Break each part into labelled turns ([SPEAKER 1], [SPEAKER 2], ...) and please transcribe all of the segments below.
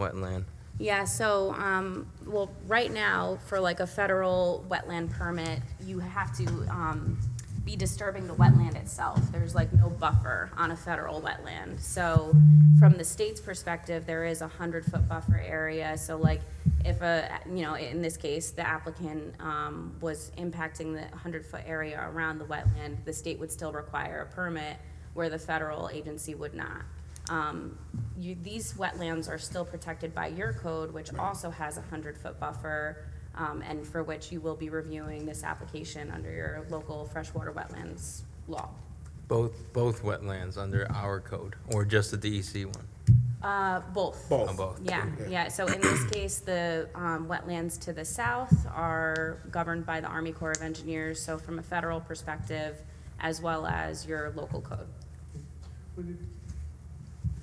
[SPEAKER 1] wetland.
[SPEAKER 2] Yeah, so, um, well, right now, for like a federal wetland permit, you have to, um, be disturbing the wetland itself. There's like no buffer on a federal wetland. So from the state's perspective, there is a hundred-foot buffer area. So like, if a, you know, in this case, the applicant, um, was impacting the hundred-foot area around the wetland, the state would still require a permit where the federal agency would not um, you, these wetlands are still protected by your code, which also has a hundred-foot buffer, um, and for which you will be reviewing this application under your local freshwater wetlands law.
[SPEAKER 1] Both, both wetlands under our code, or just the DEC one?
[SPEAKER 2] Uh, both.
[SPEAKER 1] On both?
[SPEAKER 2] Yeah, yeah, so in this case, the, um, wetlands to the south are governed by the Army Corps of Engineers, so from a federal perspective, as well as your local code.
[SPEAKER 3] Would it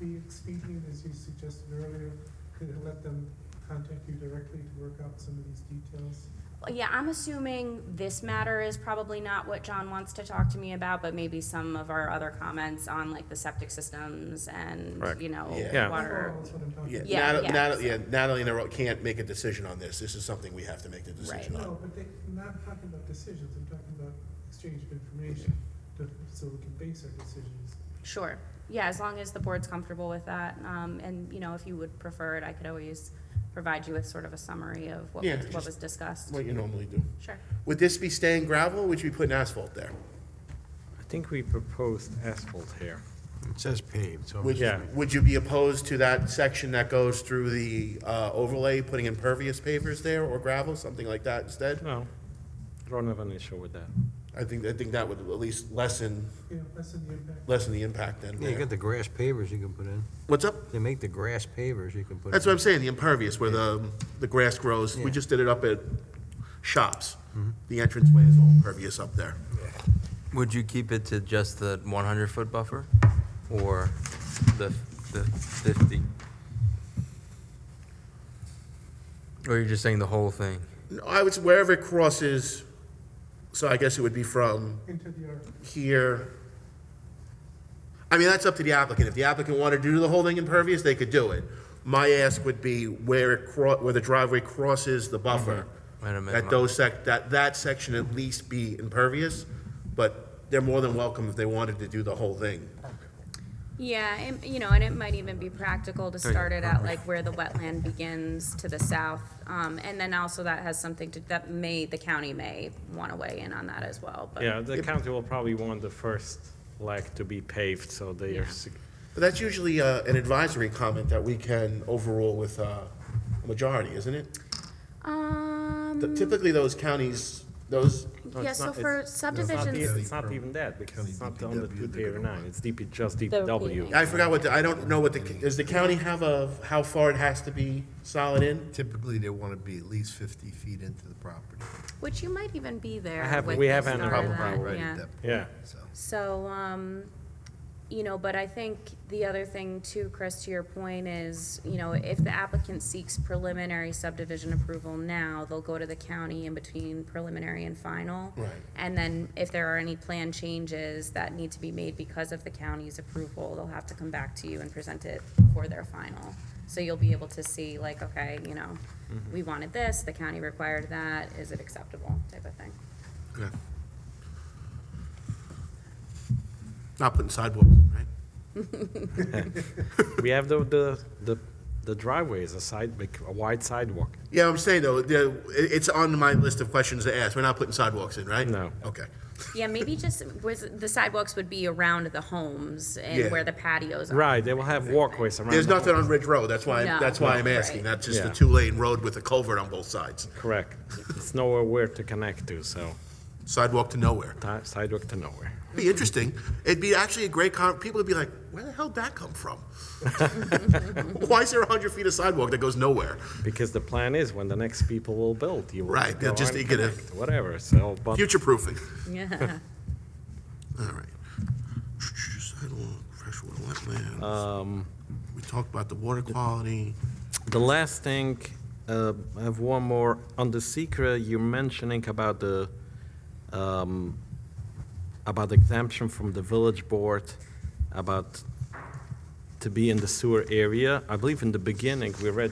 [SPEAKER 3] be expedient, as you suggested earlier, to let them contact you directly to work out some of these details?
[SPEAKER 2] Yeah, I'm assuming this matter is probably not what John wants to talk to me about, but maybe some of our other comments on like the septic systems and,
[SPEAKER 4] Correct.
[SPEAKER 2] you know,
[SPEAKER 4] Yeah.
[SPEAKER 2] water.
[SPEAKER 3] That's what I'm talking about.
[SPEAKER 2] Yeah,
[SPEAKER 4] Nat-
[SPEAKER 2] yeah.
[SPEAKER 4] Nat- yeah, Natalie and I can't make a decision on this. This is something we have to make the decision
[SPEAKER 2] Right.
[SPEAKER 4] on.
[SPEAKER 3] No, but they, I'm not talking about decisions, I'm talking about exchange of information, to- so we can base our decisions.
[SPEAKER 2] Sure. Yeah, as long as the board's comfortable with that. Um, and, you know, if you would prefer it, I could always provide you with sort of a summary of what,
[SPEAKER 4] Yeah,
[SPEAKER 2] was- what
[SPEAKER 4] just-
[SPEAKER 2] was discussed.
[SPEAKER 4] What you
[SPEAKER 5] Mm-hmm.
[SPEAKER 4] normally do.
[SPEAKER 2] Sure.
[SPEAKER 4] Would this be staying gravel, or would you be putting asphalt there?
[SPEAKER 6] I think we proposed asphalt here.
[SPEAKER 5] It says paved, so.
[SPEAKER 4] Would,
[SPEAKER 6] Yeah.
[SPEAKER 4] would you be opposed to that section that goes through the uh, overlay, putting impervious pavers there or gravel, something like that instead?
[SPEAKER 6] No, I don't have an issue with that.
[SPEAKER 4] I think, I think that would at least lessen,
[SPEAKER 3] You know, lessen the impact.
[SPEAKER 4] lessen the impact then.
[SPEAKER 5] Yeah, you got the grass pavers you can put in.
[SPEAKER 4] What's up?
[SPEAKER 5] They make the grass pavers you can put in.
[SPEAKER 4] That's what I'm saying, the impervious, where the, the grass grows. We
[SPEAKER 5] Yeah. Mm-hmm.
[SPEAKER 4] just did it up at Shops. The entranceway is all impervious up there.
[SPEAKER 1] Would you keep it to just the 100-foot buffer, or the, the 50? Or you're just saying the whole thing?
[SPEAKER 4] No, I would, s- wherever it crosses, so I guess it would be from
[SPEAKER 3] Into the art.
[SPEAKER 4] here. I mean, that's up to the applicant. If the applicant wanted to do the whole thing impervious, they could do it. My ask would be where it, cro- where the driveway crosses the buffer.
[SPEAKER 1] At Mm-hmm. a minimum.
[SPEAKER 4] That those sec, that, that section at least be impervious, but they're more than welcome if they wanted to do the whole thing.
[SPEAKER 2] Yeah, and, you know, and it might even be practical to start it out like where the wetland begins to the south. Um, and then also that has something to, that may, the county may want to weigh in on that as well, but.
[SPEAKER 6] Yeah, the county will probably want the first leg to be paved, so they are,
[SPEAKER 2] Yeah.
[SPEAKER 6] sig-
[SPEAKER 4] But that's usually uh, an advisory comment that we can overrule with uh, a majority, isn't it?
[SPEAKER 2] Um,
[SPEAKER 4] Th- Typically, those counties, those. no,
[SPEAKER 2] yeah,
[SPEAKER 4] it's
[SPEAKER 2] so
[SPEAKER 4] not-
[SPEAKER 2] for
[SPEAKER 4] it's-
[SPEAKER 6] it's not,
[SPEAKER 2] subdivisions.
[SPEAKER 6] e- it's not even that, because it's not on the
[SPEAKER 5] DPW,
[SPEAKER 6] DP or nine, it's DP, just
[SPEAKER 2] repeating.
[SPEAKER 6] DPW.
[SPEAKER 4] I forgot what, the- I don't know what the, does the county have a, how far it has to be solid in?
[SPEAKER 5] Typically, they want to be at least 50 feet into the property.
[SPEAKER 2] Which you might even be there.
[SPEAKER 6] I have-
[SPEAKER 2] with
[SPEAKER 6] we have
[SPEAKER 2] the
[SPEAKER 6] an
[SPEAKER 2] start
[SPEAKER 6] Probably
[SPEAKER 2] of that, Ah,
[SPEAKER 5] Right
[SPEAKER 2] yeah.
[SPEAKER 5] at that point,
[SPEAKER 6] Yeah,
[SPEAKER 5] so.
[SPEAKER 2] So, um, you know, but I think the other thing too, Chris, to your point is, you know, if the applicant seeks preliminary subdivision approval now, they'll go to the county in between preliminary and final.
[SPEAKER 4] Right.
[SPEAKER 2] And then if there are any plan changes that need to be made because of the county's approval, they'll have to come back to you and present it for their final. So you'll be able to see like, okay, you know, we wanted this, the county required that, is it acceptable type of thing.
[SPEAKER 4] Not putting sidewalks, in, right?
[SPEAKER 6] we have the, the, the the driveway is a side, big- a wide sidewalk.
[SPEAKER 4] Yeah, I'm saying though, the- it- it's on my list of questions to ask. We're not putting sidewalks in, right?
[SPEAKER 6] No.
[SPEAKER 4] Okay.
[SPEAKER 2] Yeah, maybe just with, the sidewalks would be around the homes
[SPEAKER 4] Yeah.
[SPEAKER 2] and where the patios are.
[SPEAKER 6] Right, they will have walkways around.
[SPEAKER 4] There's
[SPEAKER 6] the-
[SPEAKER 4] nothing on Ridge Road, that's why,
[SPEAKER 2] No.
[SPEAKER 4] that's why I'm
[SPEAKER 2] Right.
[SPEAKER 4] asking. That's just a
[SPEAKER 6] Yeah.
[SPEAKER 4] two-lane road with a culvert on both sides.
[SPEAKER 6] Correct, it's nowhere where to connect to, so,
[SPEAKER 4] Sidewalk to nowhere.
[SPEAKER 6] ti- sidewalk to nowhere.
[SPEAKER 4] Be interesting. It'd be actually a great con. People would be like, "Where the hell did that come from? Why is there hundred feet of sidewalk that goes nowhere?"
[SPEAKER 6] Because the plan is when the next people will build, you will.
[SPEAKER 4] Right, they'll
[SPEAKER 6] go
[SPEAKER 4] just
[SPEAKER 6] and
[SPEAKER 4] get a-
[SPEAKER 6] connect, Whatever, so, but
[SPEAKER 4] Future proofing.
[SPEAKER 2] Yeah.
[SPEAKER 4] All right. Sidewalk, freshwater wetlands. we talked about the water quality.
[SPEAKER 6] the last thing, uh, I have one more. On the secret, you're mentioning about the, um, about exemption from the village board, about to to be in the sewer area. I believe in the beginning, we read